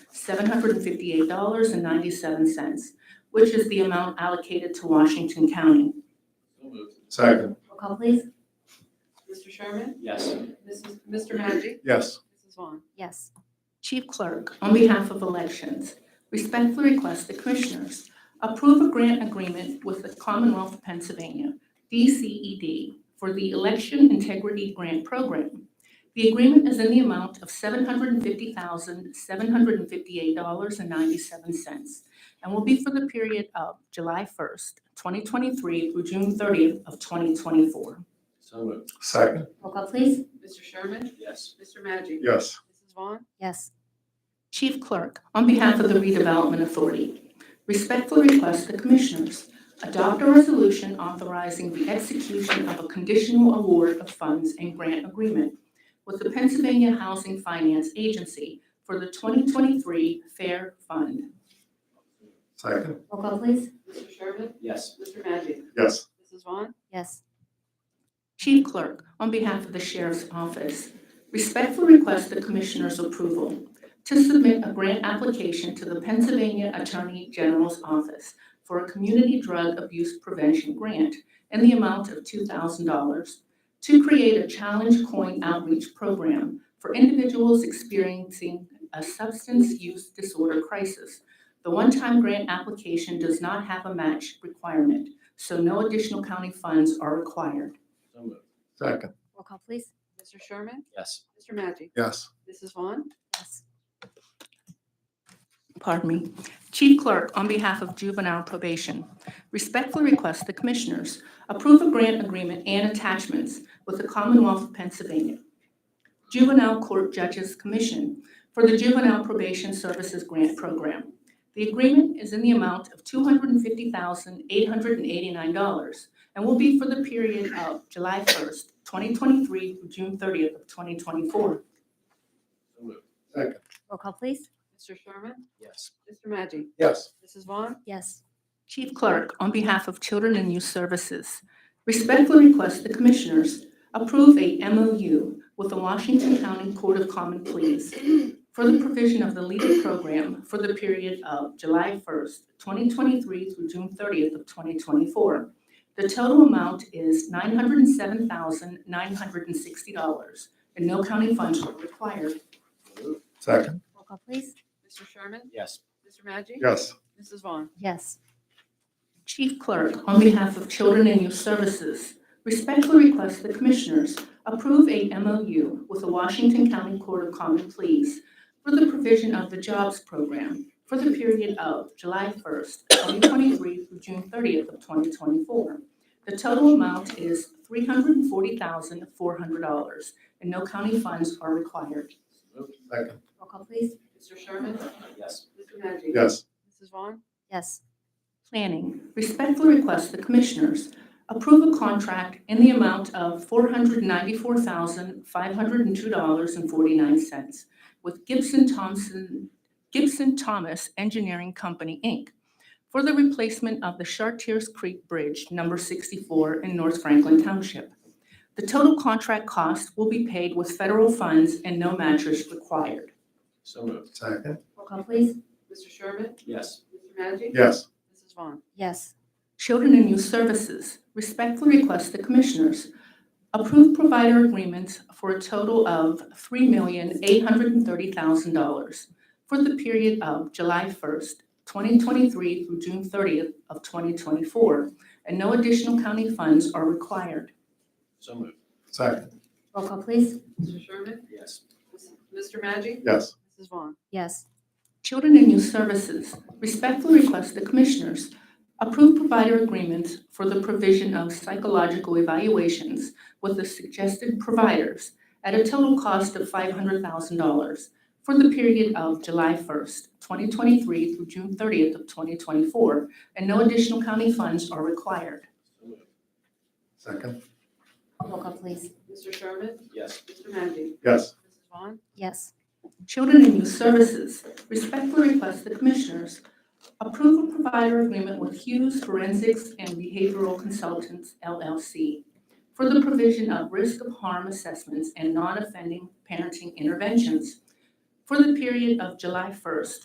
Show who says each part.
Speaker 1: seven hundred and fifty-eight dollars and ninety-seven cents, which is the amount allocated to Washington County.
Speaker 2: So moved.
Speaker 3: Second.
Speaker 4: Roll call, please.
Speaker 5: Mr. Sherman?
Speaker 2: Yes.
Speaker 5: Mrs. Mr. Maggi?
Speaker 3: Yes.
Speaker 5: Mrs. Vaughn?
Speaker 4: Yes.
Speaker 1: Chief Clerk, on behalf of Elections, respectfully request the Commissioners approve a grant agreement with the Commonwealth of Pennsylvania, DCED, for the Election Integrity Grant Program. The agreement is in the amount of $750,758.97 and will be for the period of July 1st, 2023 through June 30th of 2024.
Speaker 2: So moved.
Speaker 3: Second.
Speaker 4: Roll call, please.
Speaker 5: Mr. Sherman?
Speaker 2: Yes.
Speaker 5: Mr. Maggi?
Speaker 3: Yes.
Speaker 5: Mrs. Vaughn?
Speaker 4: Yes.
Speaker 1: Chief Clerk, on behalf of the Redevelopment Authority, respectfully request the Commissioners adopt a resolution authorizing the execution of a conditional award of funds and grant agreement with the Pennsylvania Housing Finance Agency for the 2023 Fair Fund.
Speaker 3: Second.
Speaker 4: Roll call, please.
Speaker 5: Mr. Sherman?
Speaker 2: Yes.
Speaker 5: Mr. Maggi?
Speaker 3: Yes.
Speaker 5: Mrs. Vaughn?
Speaker 4: Yes.
Speaker 1: Chief Clerk, on behalf of the Sheriff's Office, respectfully request the Commissioners' approval to submit a grant application to the Pennsylvania Attorney General's Office for a community drug abuse prevention grant in the amount of $2,000 to create a challenge coin outreach program for individuals experiencing a substance use disorder crisis. The one-time grant application does not have a match requirement, so no additional county funds are required.
Speaker 2: So moved.
Speaker 3: Second.
Speaker 4: Roll call, please.
Speaker 5: Mr. Sherman?
Speaker 2: Yes.
Speaker 5: Mr. Maggi?
Speaker 3: Yes.
Speaker 5: Mrs. Vaughn?
Speaker 4: Yes.
Speaker 1: pardon me, Chief Clerk, on behalf of juvenile probation, respectfully request the Commissioners approve a grant agreement and attachments with the Commonwealth of Pennsylvania Juvenile Court Judges Commission for the Juvenile Probation Services Grant Program. The agreement is in the amount of $250,889 and will be for the period of July 1st, 2023 through June 30th of 2024.
Speaker 2: So moved.
Speaker 4: Roll call, please.
Speaker 5: Mr. Sherman?
Speaker 2: Yes.
Speaker 5: Mr. Maggi?
Speaker 3: Yes.
Speaker 5: Mrs. Vaughn?
Speaker 4: Yes.
Speaker 1: Chief Clerk, on behalf of Children and Youth Services, respectfully request the Commissioners approve a MOU with the Washington County Court of Common Pleas for the provision of the LEADER program for the period of July 1st, 2023 through June 30th of 2024. The total amount is $907,960, and no county funds were required.
Speaker 2: So moved.
Speaker 3: Second.
Speaker 4: Roll call, please.
Speaker 5: Mr. Sherman?
Speaker 2: Yes.
Speaker 5: Mr. Maggi?
Speaker 3: Yes.
Speaker 5: Mrs. Vaughn?
Speaker 4: Yes.
Speaker 1: Chief Clerk, on behalf of Children and Youth Services, respectfully request the Commissioners approve a MOU with the Washington County Court of Common Pleas for the provision of the Jobs Program for the period of July 1st, 2023 through June 30th of 2024. The total amount is $340,400, and no county funds are required.
Speaker 2: So moved.
Speaker 3: Second.
Speaker 4: Roll call, please.
Speaker 5: Mr. Sherman?
Speaker 2: Yes.
Speaker 5: Mr. Maggi?
Speaker 3: Yes.
Speaker 5: Mrs. Vaughn?
Speaker 4: Yes.
Speaker 1: Planning respectfully request the Commissioners approve a contract in the amount of $494,502.49 with Gibson Thompson, Gibson Thomas Engineering Company, Inc. for the replacement of the Chartiers Creek Bridge Number 64 in North Franklin Township. The total contract cost will be paid with federal funds and no match is required.
Speaker 2: So moved.
Speaker 3: Second.
Speaker 4: Roll call, please.
Speaker 5: Mr. Sherman?
Speaker 2: Yes.
Speaker 5: Mr. Maggi?
Speaker 3: Yes.
Speaker 5: Mrs. Vaughn?
Speaker 4: Yes.
Speaker 1: Children and Youth Services respectfully request the Commissioners approve provider agreements for a total of $3,830,000 for the period of July 1st, 2023 through June 30th of 2024, and no additional county funds are required.
Speaker 2: So moved.
Speaker 3: Second.
Speaker 4: Roll call, please.
Speaker 5: Mr. Sherman?
Speaker 2: Yes.
Speaker 5: Mr. Maggi?
Speaker 3: Yes.
Speaker 5: Mrs. Vaughn?
Speaker 4: Yes.
Speaker 1: Children and Youth Services respectfully request the Commissioners approve provider agreements for the provision of psychological evaluations with the suggested providers at a total cost of $500,000 for the period of July 1st, 2023 through June 30th of 2024, and no additional county funds are required.
Speaker 2: So moved.
Speaker 3: Second.
Speaker 4: Roll call, please.
Speaker 5: Mr. Sherman?
Speaker 2: Yes.
Speaker 5: Mr. Maggi?
Speaker 3: Yes.
Speaker 5: Mrs. Vaughn?
Speaker 4: Yes.
Speaker 1: Children and Youth Services respectfully request the Commissioners approve a provider agreement with Hughes Forensics and Behavioral Consultants LLC for the provision of risk of harm assessments and non-offending parenting interventions for the period of July 1st,